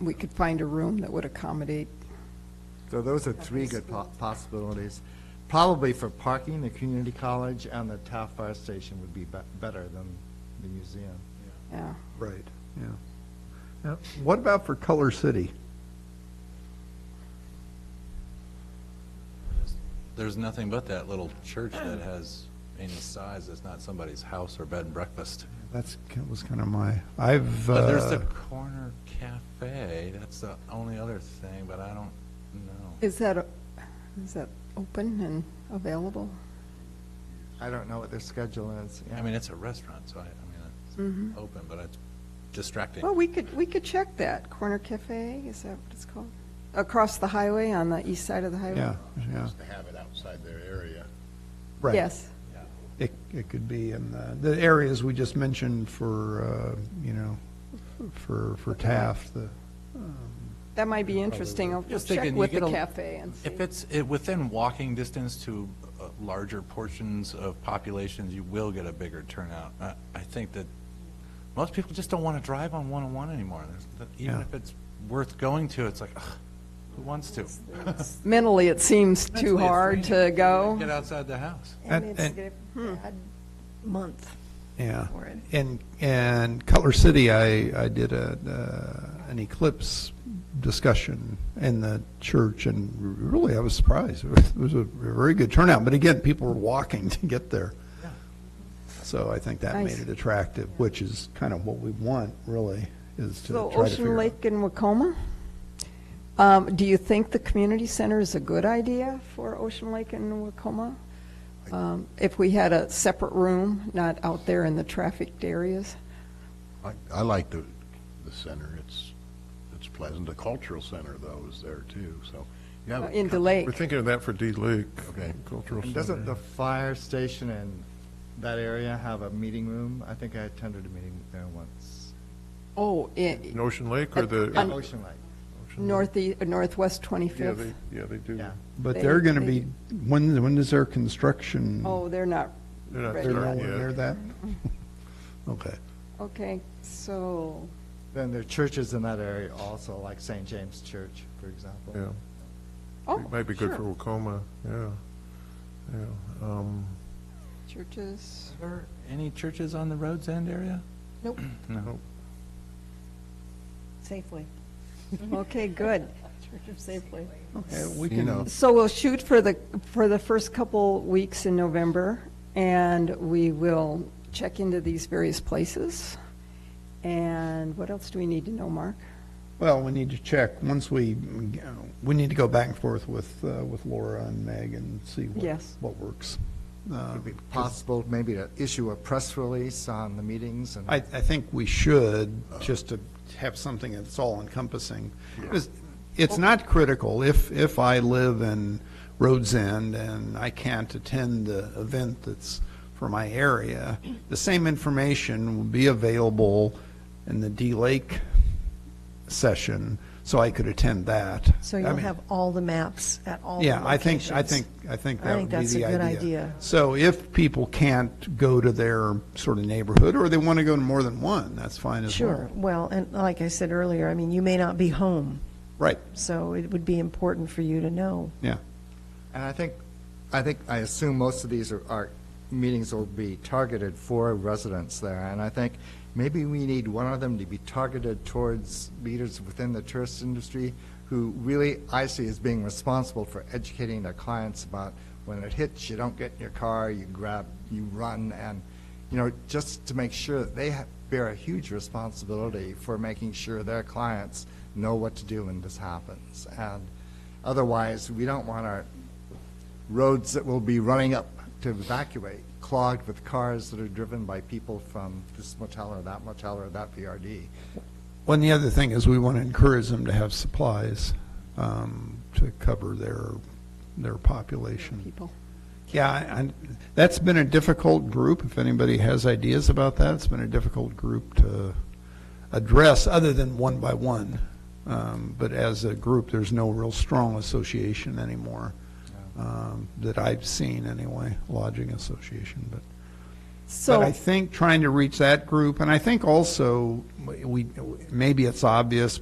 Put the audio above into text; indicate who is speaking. Speaker 1: we could find a room that would accommodate.
Speaker 2: So those are three good po- possibilities. Probably for parking, the community college and the Taft Fire Station would be be- better than the museum.
Speaker 1: Yeah,
Speaker 3: Right, yeah. Now, What about for Color City?
Speaker 4: There's nothing but that little church that has any size that's not somebody's house or bed and breakfast.
Speaker 3: That's, that was kind of my, I've,
Speaker 4: But there's the
Speaker 3: uh,
Speaker 4: corner cafe, that's the only other thing, but I don't know.
Speaker 1: is that, a- is that open and available?
Speaker 2: I don't know what their schedule is. yeah.
Speaker 4: I mean, it's a restaurant, so I, I mean, it's open, but it's distracting.
Speaker 1: Well, we could, we could check that. Corner Cafe, is that what it's called? Across the highway, on the east side of the highway?
Speaker 3: yeah, yeah,
Speaker 5: to have it outside their area.
Speaker 3: right.
Speaker 1: Yes,
Speaker 3: It, it could be in the, the areas we just mentioned for, uh, you know, for, for Taft, the,
Speaker 1: that might be interesting. I'll
Speaker 4: Just
Speaker 1: check
Speaker 4: thinking, you
Speaker 1: with
Speaker 4: get
Speaker 1: the
Speaker 4: a-
Speaker 1: cafe and see.
Speaker 4: If it's eh, within walking distance to uh, larger portions of populations, you will get a bigger turnout. I- I think that most people just don't want to drive on 101 anymore. There's- that- Even
Speaker 3: Yeah.
Speaker 4: if it's worth going to, it's like, ugh, who wants to?
Speaker 1: Mentally, it seems too
Speaker 4: Mentally, it's
Speaker 1: hard to
Speaker 4: draining.
Speaker 1: go.
Speaker 4: Get outside the house.
Speaker 3: And- Hmm.
Speaker 6: And it's
Speaker 3: and-
Speaker 6: going to bad month.
Speaker 3: yeah.
Speaker 6: For it.
Speaker 3: And, and Color City, I, I did a, uh, an eclipse discussion in the church, and really, I was surprised. It was, it was a very good turnout, but again, people were walking to get there. So I think that
Speaker 1: Nice.
Speaker 3: made it attractive, which is kind of what we want, really, is to
Speaker 1: So
Speaker 3: try to
Speaker 1: Ocean
Speaker 3: figure out.
Speaker 1: Lake and Wacoma? Um, Do you think the community center is a good idea for Ocean Lake and Wacoma? Um, If we had a separate room, not out there in the trafficked areas?
Speaker 5: I, I like the, the center, it's, it's pleasant, the cultural center though is there too, so. you have a
Speaker 1: Uh, In
Speaker 5: cou-
Speaker 1: DeLake?
Speaker 7: We're thinking of that for D Lake.
Speaker 5: Okay.
Speaker 7: Cultural
Speaker 2: And doesn't the
Speaker 7: Center.
Speaker 2: fire station and that area have a meeting room? I think I attended a meeting there once.
Speaker 1: Oh, i-
Speaker 7: In Ocean Lake or the?
Speaker 1: Un-
Speaker 2: Ocean Lake.
Speaker 7: Ocean Lake?
Speaker 1: northe- uh, northwest
Speaker 7: Yeah,
Speaker 1: 25th?
Speaker 7: they, yeah, they do.
Speaker 2: Yeah.
Speaker 3: But
Speaker 1: They-
Speaker 3: they're going to
Speaker 1: they-
Speaker 3: be, when, when does their construction?
Speaker 1: Oh, they're not,
Speaker 7: They're not
Speaker 1: Right.
Speaker 3: They're
Speaker 7: there
Speaker 3: nowhere
Speaker 7: yet.
Speaker 3: near that? Okay.
Speaker 1: okay, so,
Speaker 2: Then there are churches in that area also, like St. James Church, for example.
Speaker 7: Yeah.
Speaker 1: oh,
Speaker 7: It might be good
Speaker 1: sure.
Speaker 7: for Wacoma, yeah. Yeah. Um,
Speaker 1: Churches,
Speaker 4: Are there any churches on the Rhodes End area?
Speaker 1: Nope.
Speaker 4: No.
Speaker 6: Safely.
Speaker 1: okay, good.
Speaker 6: Safely.
Speaker 3: Okay, we
Speaker 5: You know.
Speaker 3: can,
Speaker 1: So we'll shoot for the, for the first couple weeks in November, and we will check into these various places. And what else do we need to know, Mark?
Speaker 3: well, we need to check, once we, you know, we need to go back and forth with, uh, with Laura and Meg and see what,
Speaker 1: Yes.
Speaker 3: what works. Uh,
Speaker 2: Would it be possible maybe to issue a press release on the meetings and?
Speaker 3: I, I think we should, just to have something that's all encompassing. Because it's not critical, if, if I live in Rhodes End and I can't attend the event that's for my area, the same information will be available in the D-Lake session, so I could attend that.
Speaker 6: So
Speaker 3: I
Speaker 6: you'll
Speaker 3: mean-
Speaker 6: have all the maps at all the
Speaker 3: yeah, I think, I
Speaker 6: locations.
Speaker 3: think, I think
Speaker 6: I
Speaker 3: that would
Speaker 6: think
Speaker 3: be the idea.
Speaker 6: that's a good idea.
Speaker 3: So if people can't go to their sort of neighborhood, or they want to go to more than one, that's fine as well.
Speaker 6: Sure, well, and like I said earlier, I mean, you may not be home,
Speaker 3: Right,
Speaker 6: so it would be important for you to know.
Speaker 3: yeah.
Speaker 2: And I think, I think, I assume most of these are, are, meetings will be targeted for residents there. And I think maybe we need one of them to be targeted towards leaders within the tourist industry who really, I see as being responsible for educating their clients about when it hits, you don't get in your car, you grab, you run, and, you know, just to make sure that they ha- bear a huge responsibility for making sure their clients know what to do when this happens. And otherwise, we don't want our roads that will be running up to evacuate clogged with cars that are driven by people from this motel or that motel or that VRD.
Speaker 3: Well, and the other thing is, we want to encourage them to have supplies um, to cover their, their population.
Speaker 1: People,
Speaker 3: Yeah, and that's been a difficult group, if anybody has ideas about that, it's been a difficult group to address, other than one by one. Um, But as a group, there's no real strong association anymore, um, that I've seen anyway, lodging association, but. But
Speaker 1: so,
Speaker 3: I think trying to reach that group, and I think also, we, maybe it's obvious,